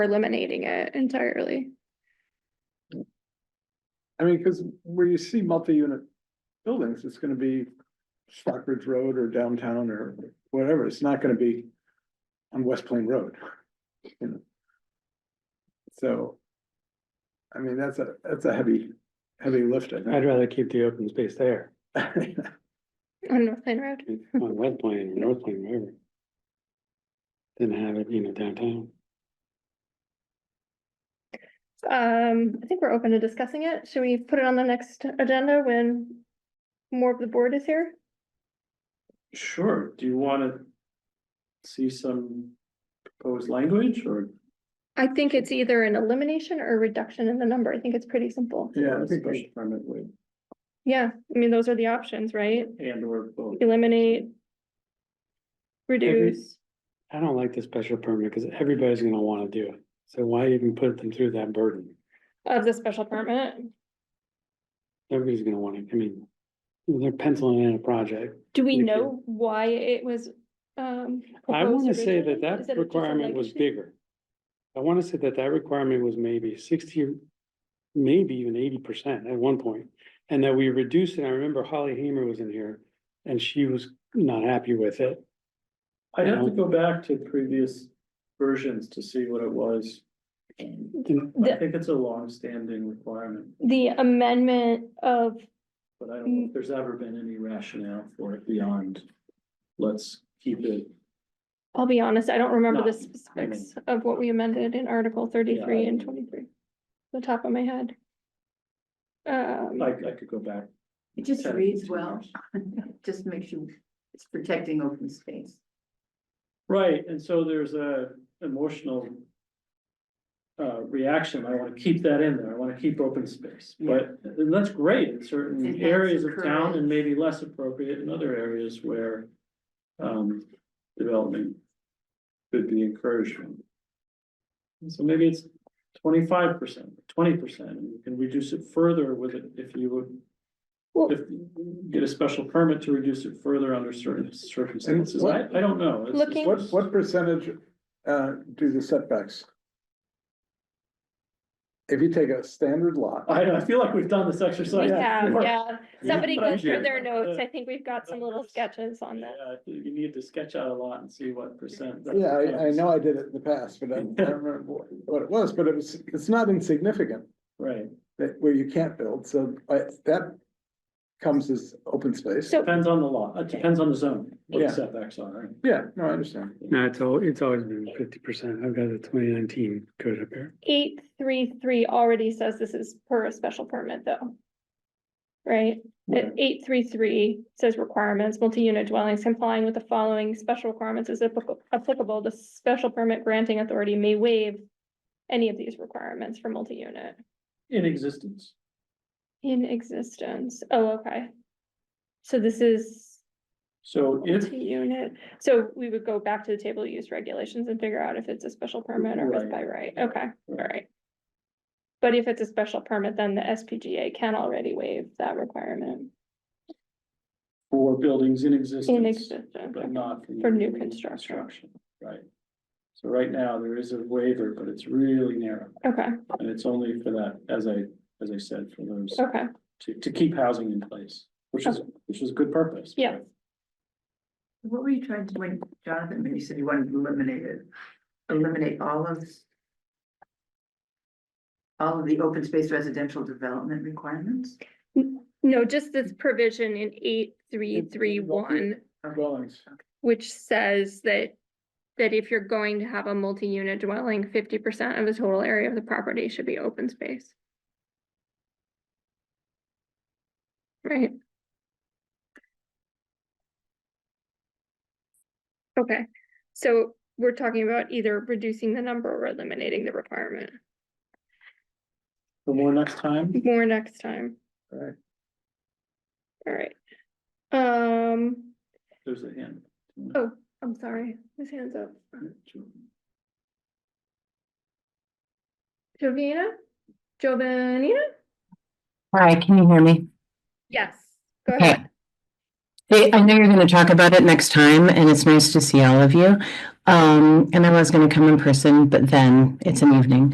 eliminating it entirely. I mean, because where you see multi-unit buildings, it's gonna be Stockbridge Road or downtown or whatever, it's not gonna be on West Plain Road. you know. So, I mean, that's a, that's a heavy, heavy lift. I I'd think. rather keep the open space there, On North Plain Road, on West Plain or North Plain, wherever. Than have it, you know, downtown. um, I think we're open to discussing it. Should we put it on the next agenda when more of the board is here? Sure, do you wanna see some proposed language or? I think it's either an elimination or a reduction in the number. I think it's pretty simple. Yeah, I think Special we- permit would, Yeah, I mean, those are the options, right? and or both, Eliminate. Reduce. I don't like the special permit because everybody's gonna wanna do it, so why even put them through that burden? Of the special permit, Everybody's gonna wanna, I mean, they're penciling in a project. do we You know why it was, um? I proposed wanna say originally? that Is it that just a requirement was legacy? bigger. I wanna say that that requirement was maybe sixty, maybe even eighty percent at one point, And that we reduced it, I remember Holly Hamer was in here, and she was not happy with it. I'd have to go back to previous versions to see what it was. I And The- think it's a long-standing requirement, The amendment of but I don't know if there's ever been any rationale for it beyond, let's keep it. I'll be honest, I don't remember the No, I mean- specifics of what we amended in Article thirty-three and twenty-three. The top of my head. Um, I, I could go back. It just 10, reads 15 well, years. just makes you, it's protecting open space. Right, and so there's a emotional. Uh, reaction, I wanna keep that in there, I wanna keep open space, but, and that's great in It certain has areas of town and encouraged. maybe less appropriate in other areas where. Um, development could be encouraged. from. And So maybe it's twenty-five percent, twenty percent, and you can reduce it further with it if you would. Well- If, get a special permit to reduce it further under certain circumstances, I, I don't know. It's- it's- Looking- What, what percentage, uh, do the setbacks? If you take a standard lot, I, I feel like we've done this we exercise. have, before. yeah, somebody but I goes through do. their notes, I think we've got some little sketches on that. Yeah, You need to sketch out a lot and see what percent. yeah, I, I know I did it in the past, but I don't I don't remember what- what it was, but it was, it's not insignificant. Right, that where you can't build, so I, that comes as open space. So- depends on the law, it depends on the zone, what Yeah. the setbacks are. Yeah, no, I understand. No, it's al- it's always been fifty percent, I've got the twenty nineteen code up here. Eight, three, three already says this is per a special permit though. Right, Uh, Right. eight, three, three says requirements, multi-unit dwellings complying with the following special requirements is applica- applicable. The special permit granting authority may waive any of these requirements for multi-unit. In existence, In existence, oh, okay. So this is so if, multi-unit, so we would go back to the table use regulations and figure out if it's a special permit or if it's by right, okay, all right. But if it's a special permit, then the SPGA can already waive that requirement for buildings in in existence, existence. but not. For new construction. Right. So right now, there is a waiver, but it's really narrow, Okay, and it's only for that, as I, as I said, for those, okay, to, to keep housing in place, which is, which is a good purpose. Yeah. What were you trying to, when Jonathan, when you said you wanted to eliminate it, eliminate all of all of the open space residential development requirements? no, just this provision in eight, three, three, one. Dwellings. which says that, that if you're going to have a multi-unit dwelling, fifty percent of the total area of the property should be open space. Right? Okay, so we're talking about either reducing the number or eliminating the requirement. For more next time. More next time. Alright. Alright. Um, There's a hand. oh, I'm sorry, his hand's up. Jovina? Jovanina? Hi, can you hear me? Yes. Go Okay. ahead. Hey, I know you're going to talk about it next time, and it's nice to see all of you. Um, and I was gonna come in person, but then it's an evening.